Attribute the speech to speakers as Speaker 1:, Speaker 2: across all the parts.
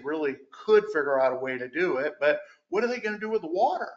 Speaker 1: probably could figure out a way to do it, but what are they gonna do with the water?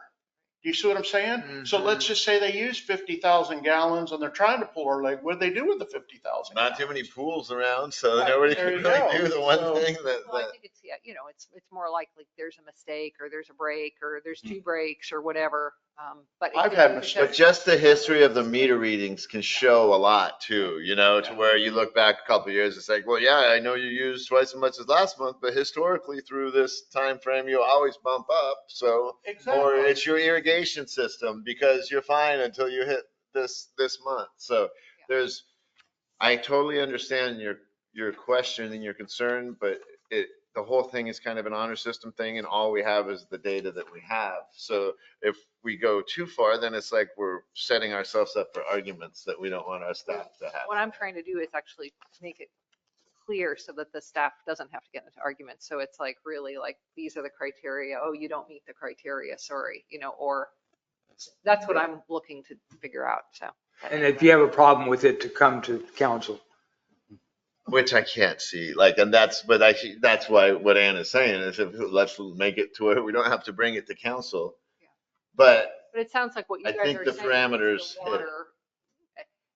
Speaker 1: Do you see what I'm saying? So
Speaker 2: Mm-hmm.
Speaker 1: let's just say they use fifty thousand gallons and they're trying to pull our leg, what do they do with the fifty thousand?
Speaker 3: Not too many pools around, so
Speaker 1: Right,
Speaker 3: nobody
Speaker 1: there
Speaker 3: can
Speaker 1: you
Speaker 3: really
Speaker 1: go.
Speaker 3: do the one
Speaker 1: So-
Speaker 3: thing that,
Speaker 4: Well, I
Speaker 3: that,
Speaker 4: think it's, yeah, you know, it's, it's more likely there's a mistake or there's a break or there's two breaks or whatever. um, But. it
Speaker 1: I've
Speaker 4: could-
Speaker 1: had
Speaker 4: it
Speaker 1: mistakes.
Speaker 3: but
Speaker 4: doesn't-
Speaker 3: just the history of the meter readings can show a lot too, you know, to where you look back a couple of years, it's like, well, yeah, I know you used twice as much as last month, but historically through this time frame, you always bump up, so. Or
Speaker 1: Exactly.
Speaker 3: it's your irrigation system because you're fine until you hit this, this month, so there's, I totally understand your, your question and your concern, but it, the whole thing is kind of an honor system thing and all we have is the data that we have. So if we go too far, then it's like we're setting ourselves up for arguments that we don't want our staff to have.
Speaker 4: What I'm trying to do is actually make it clear so that the staff doesn't have to get into arguments. So it's like really like, these are the criteria. Oh, you don't meet the criteria, sorry, you know, or that's what I'm looking to figure out, so.
Speaker 5: And if you have a problem with it, to come to council.
Speaker 3: Which I can't see, like, and that's, but I, see- that's why what Ann is saying is if, let's make it to where we don't have to bring it to council.
Speaker 4: Yeah.
Speaker 3: But
Speaker 4: But it sounds like what you
Speaker 3: I
Speaker 4: guys are saying.
Speaker 3: think the
Speaker 4: is the
Speaker 3: parameters hit it.
Speaker 4: water-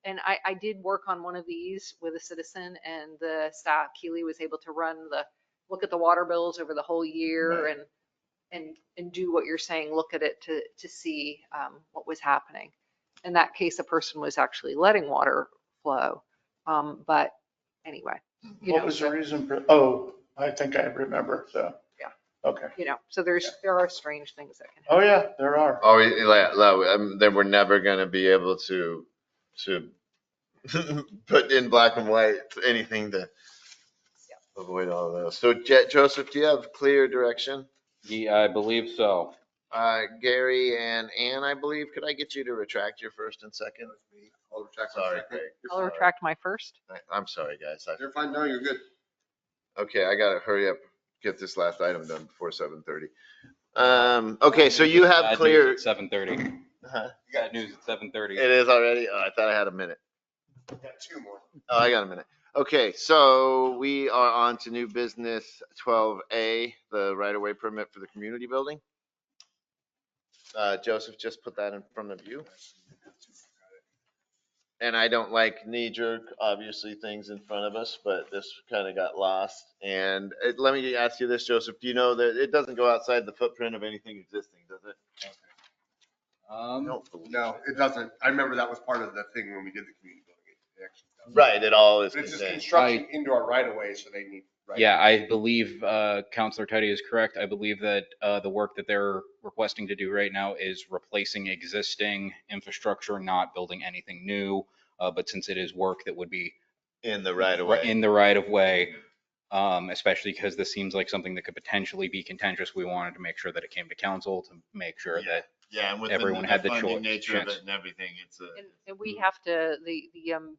Speaker 4: And I, I did work on one of these with a citizen and the staff, Keely was able to run the, look at the water bills over the whole year
Speaker 3: Right.
Speaker 4: and, and, and do what you're saying, look at it to, to see um, what was happening. In that case, a person was actually letting water flow. Um, But anyway, you
Speaker 1: What
Speaker 4: know,
Speaker 1: was the
Speaker 4: so-
Speaker 1: reason for, oh, I think I remember, so.
Speaker 4: Yeah.
Speaker 1: Okay.
Speaker 4: you know, so there's, there are strange things that can happen.
Speaker 1: Oh, yeah, there are.
Speaker 3: always like, like, um, then we're never gonna be able to to put in black and white anything to avoid all of those. So Je- Joseph, do you have clear direction?
Speaker 6: Yeah, I believe so.
Speaker 3: Uh, Gary and Ann, I believe, could I get you to retract your first and second?
Speaker 2: I'll retract my
Speaker 3: Sorry,
Speaker 2: second.
Speaker 3: Greg.
Speaker 4: I'll retract my first.
Speaker 3: I- I'm sorry, guys. I-
Speaker 2: You're fine, no, you're good.
Speaker 3: Okay, I gotta hurry up, get this last item done before seven thirty. Um, okay, so you have clear.
Speaker 6: Seven thirty.
Speaker 3: Huh?
Speaker 6: Bad news at seven thirty.
Speaker 3: It is already? Oh, I thought I had a minute.
Speaker 2: Got two more.
Speaker 3: Oh, I got a minute. Okay, so we are on to new business twelve A, the right-of-way permit for the community building. Uh, Joseph, just put that in front of you. And I don't like knee-jerk, obviously, things in front of us, but this kind of got lost. And it- let me ask you this, Joseph, do you know that it doesn't go outside the footprint of anything existing, does it? I
Speaker 6: Um,
Speaker 3: don't believe
Speaker 2: No,
Speaker 3: it.
Speaker 2: it doesn't. I remember that was part of the thing when we did the community building. It actually doesn't.
Speaker 3: Right, it all is
Speaker 2: But it's just
Speaker 3: contained.
Speaker 2: construction into our right of way, so they need. right-
Speaker 6: yeah, I believe, uh, Counselor Teddy is correct. I believe that, uh, the work that they're requesting to do right now is replacing existing infrastructure, not building anything new. Uh, but since it is work that would be
Speaker 3: in the right-of-way.
Speaker 6: in the right of way, um, especially because this seems like something that could potentially be contentious. We wanted to make sure that it came to council to make sure
Speaker 3: Yeah.
Speaker 6: that
Speaker 3: Yeah, and within
Speaker 6: everyone
Speaker 3: the
Speaker 6: had the
Speaker 3: funding
Speaker 6: choice-
Speaker 3: nature of
Speaker 6: chance.
Speaker 3: it and everything, it's a.
Speaker 4: And, and
Speaker 5: Mm.
Speaker 4: we have to, the, the, um,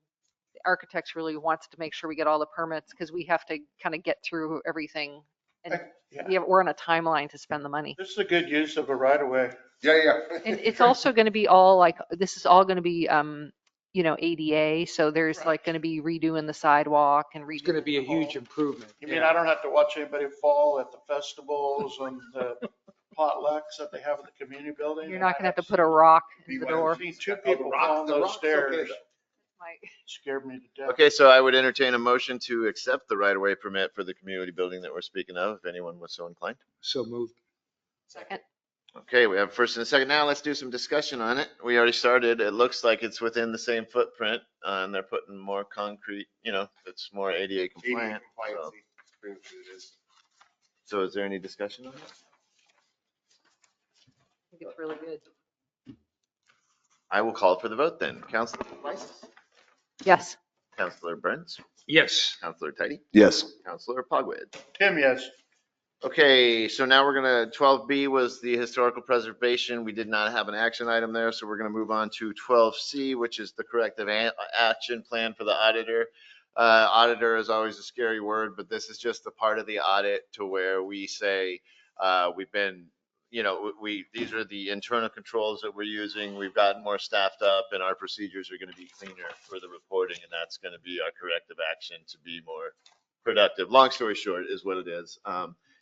Speaker 4: the architects really wants to make sure we get all the permits because we have to kind of get through everything. And
Speaker 1: I- yeah.
Speaker 4: we have, we're on a timeline to spend the money.
Speaker 1: This is a good use of a right of way.
Speaker 2: Yeah, yeah.
Speaker 4: And it's also going to be all like, this is all going to be, um, you know, ADA. So there's
Speaker 1: Right.
Speaker 4: like going to be redoing the sidewalk and redoing.
Speaker 5: It's going to be a
Speaker 4: the whole-
Speaker 5: huge improvement.
Speaker 1: You mean I don't have to watch anybody fall at the festivals and the potlucks that they have at the community building?
Speaker 4: You're not going to have to put a rock in the
Speaker 2: BYOB.
Speaker 4: door.
Speaker 1: I've seen two
Speaker 2: Oh, the
Speaker 1: people
Speaker 2: rock-
Speaker 1: fall
Speaker 2: the
Speaker 1: those
Speaker 2: rock's okay,
Speaker 1: stairs.
Speaker 2: though.
Speaker 4: Like,
Speaker 1: Scared me to death.
Speaker 3: Okay, so I would entertain a motion to accept the right-of-way permit for the community building that we're speaking of, if anyone was so inclined.
Speaker 5: So moved.
Speaker 4: Second,
Speaker 3: Okay, we have first and a second. Now let's do some discussion on it. We already started. It looks like it's within the same footprint, uh, and they're putting more concrete, you know, it's more ADA
Speaker 2: ADA
Speaker 3: compliant. so-
Speaker 2: compliance, it's pretty much what it is.
Speaker 3: So is there any discussion on it?
Speaker 4: I think it's really good.
Speaker 3: I will call for the vote then. Counselor Weiss,
Speaker 4: Yes.
Speaker 3: Counselor Burns,
Speaker 5: Yes.
Speaker 3: Counselor Tidy,
Speaker 2: Yes.
Speaker 3: Counselor Pogwizd.
Speaker 1: Tim, yes.
Speaker 3: Okay, so now we're gonna, twelve B was the historical preservation. We did not have an action item there, so we're gonna move on to twelve C, which is the corrective a- action plan for the auditor. Uh, auditor is always a scary word, but this is just the part of the audit to where we say, uh, we've been, you know, we, these are the internal controls that we're using. We've gotten more staffed up and our procedures are gonna be cleaner for the reporting and that's gonna be our corrective action to be more productive. Long story short is what it is. Um,